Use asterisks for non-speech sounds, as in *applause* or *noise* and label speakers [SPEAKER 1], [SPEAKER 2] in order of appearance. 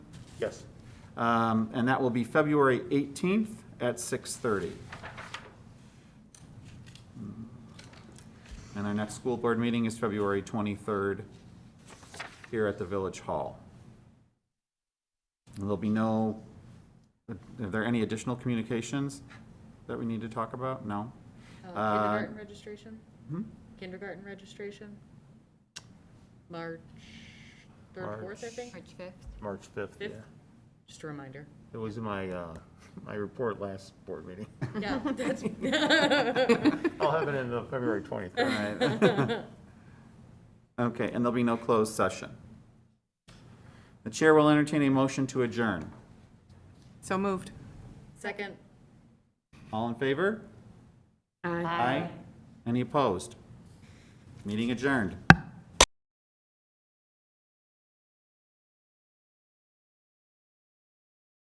[SPEAKER 1] Yes.
[SPEAKER 2] Um, And that will be February 18th at 6:30. And our next school board meeting is February 23rd here at the Village Hall. And There'll be no, are there any additional communications that we need to talk about? No?
[SPEAKER 3] Uh,
[SPEAKER 2] Uh,
[SPEAKER 3] Kindergarten registration?
[SPEAKER 2] hmm?
[SPEAKER 3] Kindergarten registration? March third, fourth, I
[SPEAKER 1] March-
[SPEAKER 3] think?
[SPEAKER 4] March 5th.
[SPEAKER 1] March 5th, yeah.
[SPEAKER 3] Fifth? Just a reminder.
[SPEAKER 1] It was in my, uh, my report last board meeting.
[SPEAKER 3] Yeah, that's.
[SPEAKER 1] I'll have it in the February 23rd.
[SPEAKER 2] Right. *laughs* Okay, and there'll be no closed session. The chair will entertain a motion to adjourn.
[SPEAKER 5] So moved.
[SPEAKER 3] Second.
[SPEAKER 2] All in favor? Aye. Any opposed? Meeting adjourned.